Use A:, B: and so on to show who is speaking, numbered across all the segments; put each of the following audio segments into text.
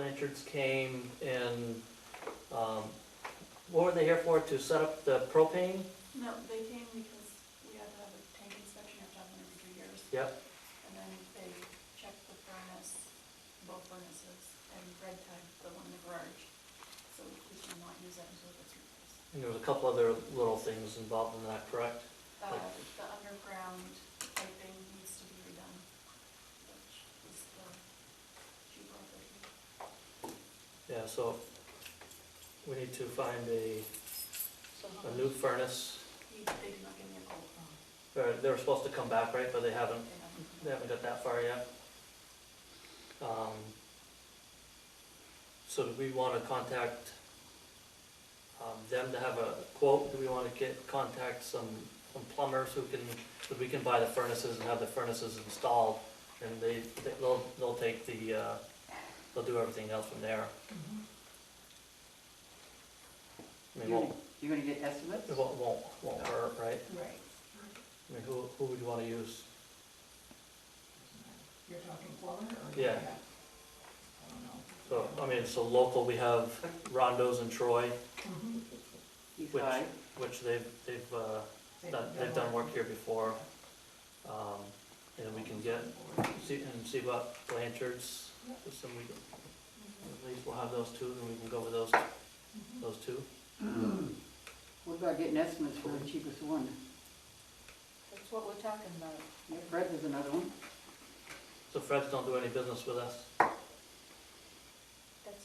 A: Richards came and, um, what were they here for, to set up the propane?
B: No, they came because we had to have a tank inspection, you have to have one every two years.
A: Yep,
B: And then they checked the furnace, both furnaces, and red tagged the one in the garage. So we cannot use that until it's replaced.
A: and there was a couple other little things involved in that, correct?
B: Uh,
A: Like-
B: the underground piping needs to be redone, which is the cheaper version.
A: Yeah, so we need to find a,
B: So how
A: a new
B: much-
A: furnace.
B: He, they did not give me a quote.
A: Or they were supposed to come back, right, but they haven't,
B: They haven't.
A: they haven't got that far yet. Um, So do we wanna contact, um, them to have a quote? Do we wanna get, contact some, some plumbers who can, that we can buy the furnaces and have the furnaces installed? And they, they- they'll, they'll take the, uh, they'll do everything else from there. I mean,
C: You're
A: won't,
C: gonna- you're gonna get estimates?
A: it won't, won't, won't hurt, right?
D: Right.
A: I mean, who, who would you wanna use?
D: You're talking plumber or?
A: Yeah.
D: I don't know.
A: So, I mean, so local, we have Rondo's and Troy,
D: Mhm.
C: He's
A: Which-
C: high.
A: which they've, they've, uh, done, they've done work here before. Um, and then we can get, see, and see what Blanchard's, just then we, can-
B: Mm-hmm.
A: at least we'll have those two, then we can go with those,
D: Mhm.
A: those two.
C: What about getting estimates for the cheapest one?
B: That's what we're talking about.
C: Yeah, Fred is another one.
A: So Fred's don't do any business with us,
B: That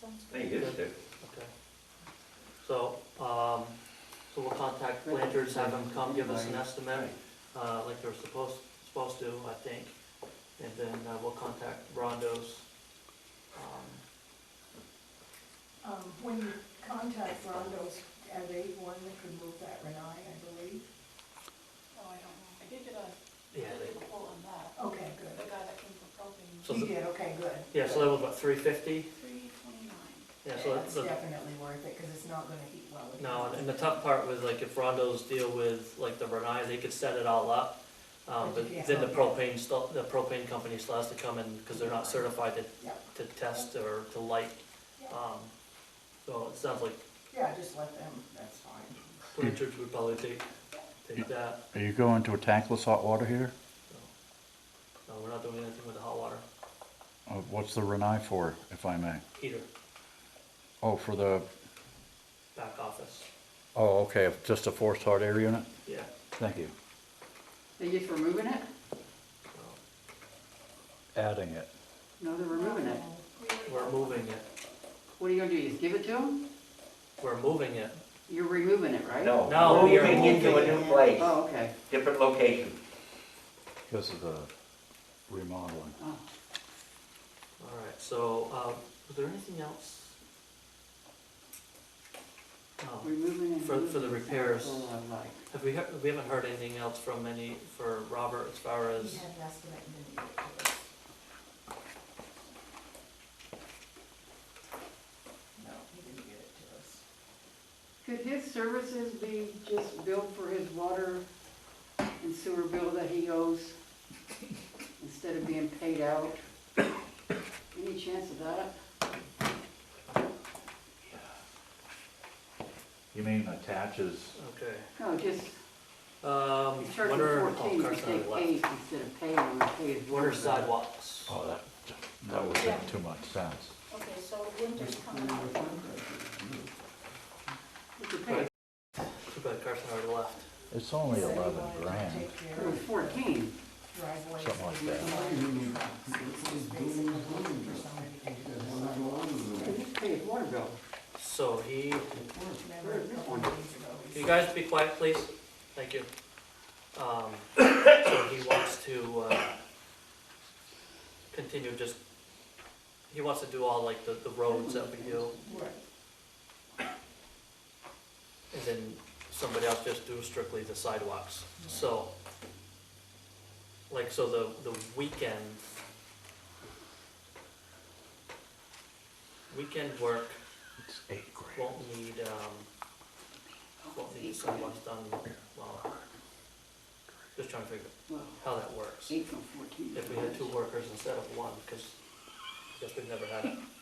B: sounds
E: I think it is too.
A: okay? So, um, so we'll contact
C: Fred-
A: Blanchard's, have them come give us an estimate,
E: Right.
A: uh, like they're supposed, supposed to, I think. And then uh, we'll contact Rondo's, um,
D: Um, when you contact Rondo's, are they one that could move that Renai, I believe?
B: Oh, I don't know. I did get a, I
A: Yeah,
B: did
A: they-
B: a quote on that.
D: Okay,
B: The
D: good.
B: guy that came for propane,
A: So
D: He
A: the-
D: did, okay, good.
A: yeah, so that was about three fifty,
B: three twenty-nine.
A: yeah, so that's,
D: It's
A: the-
D: definitely worth it, because it's not gonna heat well. if
A: no,
D: you-
A: and the tough part was like if Rondo's deal with like the Renai, they could set it all up. Um,
D: But
A: but
D: you can't
A: then the
D: help
A: propane still, the propane company still has to come in, cause they're not certified to,
D: Yeah,
A: to test or to light.
D: Yeah.
A: Um, so it sounds like
D: yeah, just let them, that's fine.
A: Blanchard's would probably take, take that,
F: Are you going to a tankless hot water here?
A: so. No, Uh, we're not doing anything with the hot water
F: Uh, What's the Renai for, if I may?
A: heater,
F: Oh, for the,
A: back office,
F: oh, okay, just a forced hot air unit?
A: yeah.
F: Thank you.
C: They just removing it?
A: so.
F: Adding it.
C: No, they're removing it.
A: We're moving it,
C: What are you gonna do, just give it to them?
A: we're moving it.
C: You're removing it, right?
E: No.
A: No, we are
E: Moving into a
A: moving.
E: new place,
C: Oh, okay.
E: different location.
F: This is a remodeling.
C: Oh,
A: All right, so, uh, was there anything else? Um,
C: removing and.
A: For- for the
C: removing.
A: repairs.
C: That's all I like.
A: Have we, heard- we haven't heard anything else from any, for Robert as far as,
D: He had an estimate and didn't give it to us. No, he didn't give it to us.
C: Could his services be just billed for his water and sewer bill that he owes instead of being paid out? Any chance of that?
F: You mean attaches?
A: okay.
C: No, just,
A: Um,
C: he's
A: what are,
C: charging
A: oh,
C: fourteen, you
A: Carson,
C: take
A: what,
C: eight instead of paying him, pay his
A: what
C: water
A: are
C: bill.
A: sidewalks?
F: Oh, that, that would make too much sense.
B: Okay, so winter's coming up.
C: It's a pay,
A: Too bad Carson already left.
F: It's only
D: Said he
F: eleven
D: wanted to
F: grand.
D: take care
C: it was
D: of
C: fourteen.
D: driveways
F: Something like
D: and
F: that.
D: utilities trucks. It's basically for somebody to do this.
C: Yeah, Just pay his water bill.
A: So he,
D: Remember a couple of days ago,
A: can
D: he
A: you
D: said,
A: guys be quiet, please? Thank you. Um, so he wants to, uh, continue just, he wants to do all like the, the roads that we do.
D: "Right,
A: and then somebody else just do strictly the sidewalks. So, like, so the, the weekend, weekend work
F: It's eight grand.
A: won't need, um, won't need sidewalks done, well, just trying to figure
C: Well,
A: how that works.
C: Eight from fourteen.
A: If we had two workers instead of one, because I guess we've never had it.